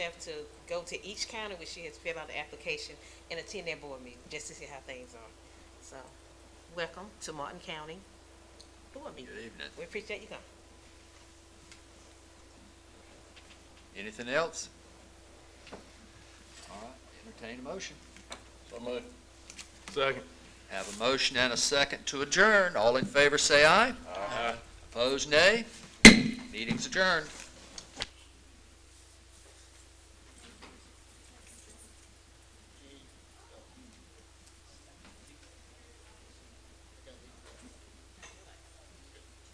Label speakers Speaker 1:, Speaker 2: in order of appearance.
Speaker 1: have to go to each county where she has filled out the application and attend their board meeting, just to see how things are. So, welcome to Martin County Board Meeting.
Speaker 2: Good evening.
Speaker 1: We appreciate you coming.
Speaker 2: Anything else? All right, entertain a motion.
Speaker 3: So moved. Second.
Speaker 2: Have a motion and a second to adjourn. All in favor, say aye. Opposed, nay. Meeting's adjourned.